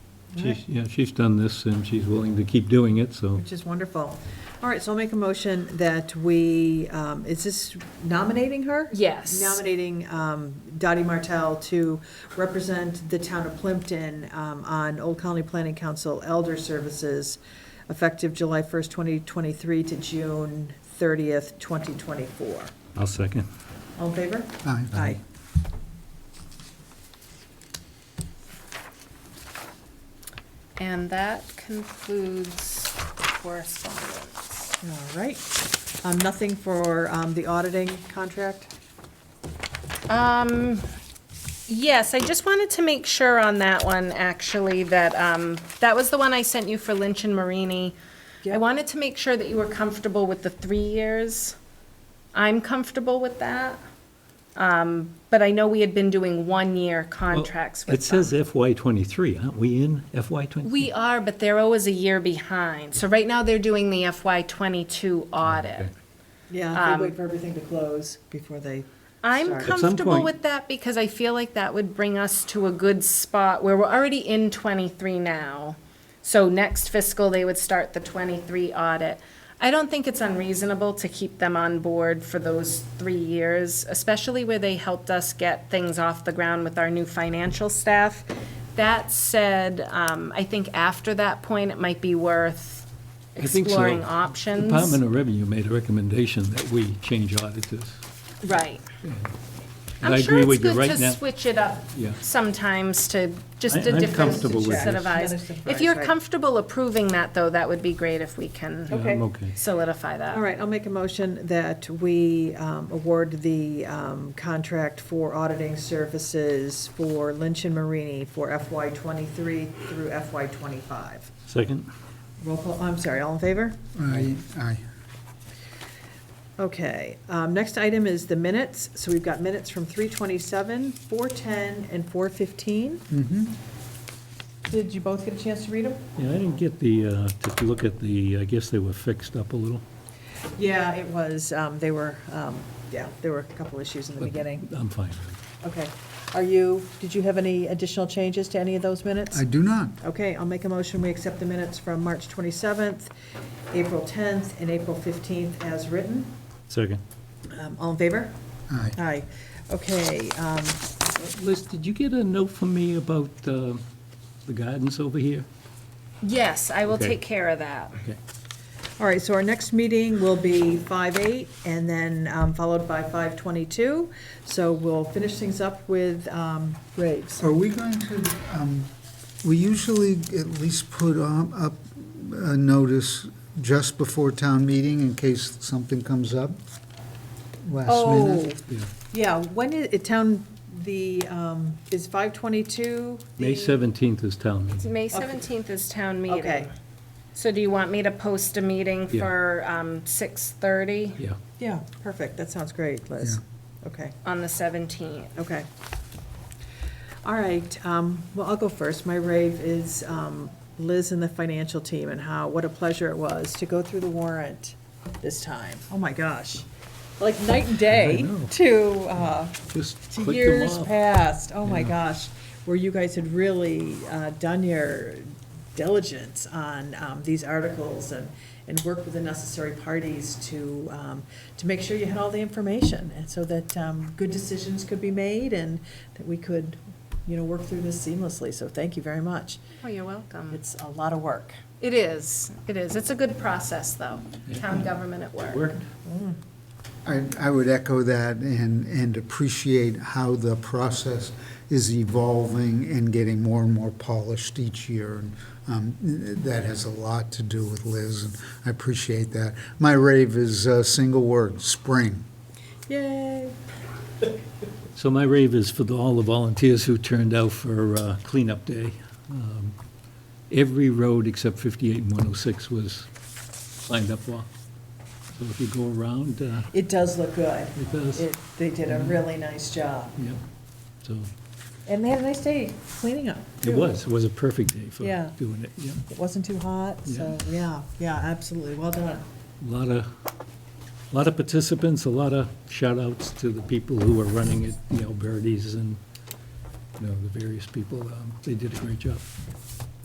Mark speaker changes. Speaker 1: She's, yeah, she's done this, and she's willing to keep doing it, so.
Speaker 2: Which is wonderful. All right, so I'll make a motion that we, um, is this nominating her?
Speaker 3: Yes.
Speaker 2: Nominating um, Dottie Martell to represent the town of Plimpton um, on Old Colony Planning Council Elder Services effective July 1st, 2023 to June 30th, 2024.
Speaker 1: I'll second.
Speaker 2: All in favor?
Speaker 4: Aye.
Speaker 2: Aye.
Speaker 3: And that concludes correspondence.
Speaker 2: All right. Um, Nothing for um, the auditing contract?
Speaker 3: Um, yes, I just wanted to make sure on that one, actually, that, um, that was the one I sent you for Lynch and Marini. I
Speaker 2: Yep.
Speaker 3: wanted to make sure that you were comfortable with the three years. I'm comfortable with that. Um, but I know we had been doing one-year contracts with
Speaker 1: It
Speaker 3: them.
Speaker 1: says FY twenty-three, aren't we in FY twenty-three?
Speaker 3: We are, but they're always a year behind. So right now, they're doing the FY twenty-two audit.
Speaker 1: Okay.
Speaker 2: Yeah, they wait for everything to close before they,
Speaker 3: I'm
Speaker 2: Sorry.
Speaker 1: At some
Speaker 3: comfortable
Speaker 1: point-
Speaker 3: with that because I feel like that would bring us to a good spot where we're already in twenty-three now. So next fiscal, they would start the twenty-three audit. I don't think it's unreasonable to keep them on board for those three years, especially where they helped us get things off the ground with our new financial staff. That said, um, I think after that point, it might be worth
Speaker 1: I think so.
Speaker 3: exploring options.
Speaker 1: Department of Revenue made a recommendation that we change auditors.
Speaker 3: Right.
Speaker 1: I
Speaker 3: I'm
Speaker 1: agree
Speaker 3: sure it's
Speaker 1: with you
Speaker 3: good
Speaker 1: right now.
Speaker 3: to switch it up
Speaker 1: Yeah.
Speaker 3: sometimes to just
Speaker 1: I-
Speaker 3: a
Speaker 1: I'm
Speaker 3: different
Speaker 1: comfortable with
Speaker 3: set of
Speaker 2: this.
Speaker 3: eyes.
Speaker 2: Another surprise,
Speaker 3: If you're
Speaker 2: right.
Speaker 3: comfortable approving that, though, that would be great if we
Speaker 1: Yeah,
Speaker 3: can
Speaker 2: Okay.
Speaker 1: I'm okay.
Speaker 3: solidify that.
Speaker 2: all right, I'll make a motion that we um, award the um, contract for auditing services for Lynch and Marini for FY '23 through FY '25.
Speaker 1: Second?
Speaker 2: Roll call, I'm sorry, all in favor?
Speaker 4: Aye, aye.
Speaker 2: Okay, um, next item is the minutes. So we've got minutes from 3:27, 4:10, and 4:15. Did you both get a chance to read them?
Speaker 1: Yeah, I didn't get the, uh, to look at the, I guess they were fixed up a little.
Speaker 2: Yeah, it was, um, they were, um, yeah, there were a couple issues in the beginning.
Speaker 1: I'm fine.
Speaker 2: Okay. Are you, did you have any additional changes to any of those minutes?
Speaker 4: I do not.
Speaker 2: Okay, I'll make a motion, we accept the minutes from March 27th, April 10th, and April 15th as written.
Speaker 1: Second.
Speaker 2: Um, All in favor?
Speaker 4: Aye.
Speaker 2: Aye. Okay, um,
Speaker 1: Liz, did you get a note from me about uh, the gardens over here?
Speaker 3: Yes, I will
Speaker 1: Okay.
Speaker 3: take care of that.
Speaker 1: Okay.
Speaker 2: all right, so our next meeting will be 5:08, and then um, followed by 5:22. So we'll finish things up with um, Graves.
Speaker 4: Are we going to, um, we usually at least put um, up a notice just before town meeting in case something comes up last
Speaker 2: Oh,
Speaker 4: minute?
Speaker 1: Yeah.
Speaker 2: yeah, when is, it town, the, um, is 5:22?
Speaker 1: May
Speaker 2: the-
Speaker 1: 17th is town meeting.
Speaker 3: May 17th is town meeting.
Speaker 2: Okay,
Speaker 3: So do you want me to post a meeting
Speaker 1: Yeah.
Speaker 3: for um, 6:30
Speaker 1: Yeah.
Speaker 2: yeah, perfect, that sounds great, Liz. Okay,
Speaker 3: on the 17th?
Speaker 2: okay. All right, um, well, I'll go first. My rave is um, Liz and the financial team and how, what a pleasure it was to go through the warrant this time. Oh, my gosh. Like night and day
Speaker 1: know.
Speaker 2: to, uh,
Speaker 1: Just
Speaker 2: to
Speaker 1: click them
Speaker 2: years
Speaker 1: off.
Speaker 2: past, oh my
Speaker 1: Yeah.
Speaker 2: gosh, where you guys had really uh, done your diligence on um, these articles and, and worked with the necessary parties to, um, to make sure you had all the information, and so that um, good decisions could be made and that we could, you know, work through this seamlessly, so thank you very much.
Speaker 3: Oh, you're welcome.
Speaker 2: It's a lot of work.
Speaker 3: It is, it is. It's a good process, though. Town government at work.
Speaker 1: Worked?
Speaker 4: I, I would echo that and, and appreciate how the process is evolving and getting more and more polished each year. And um, That has a lot to do with Liz, and I appreciate that. My rave is a single word, spring.
Speaker 2: Yay.
Speaker 1: So my rave is for the- all the volunteers who turned out for uh, cleanup day. Um, Every road except 58 and 106 was signed up for. So if you go around, uh,
Speaker 2: It does look good.
Speaker 1: it does,
Speaker 2: It, they did a really nice job,
Speaker 1: yeah. So
Speaker 2: and they had a nice day cleaning up.
Speaker 1: it
Speaker 2: too.
Speaker 1: was, it was a perfect day for
Speaker 2: Yeah.
Speaker 1: doing it, yeah.
Speaker 2: It wasn't too hot, so, yeah, yeah, absolutely, well done.
Speaker 1: A Lot of, lot of participants, a lot of shout outs to the people who were running it, you know, Verdes and, you know, the various people. Um, They did a great job.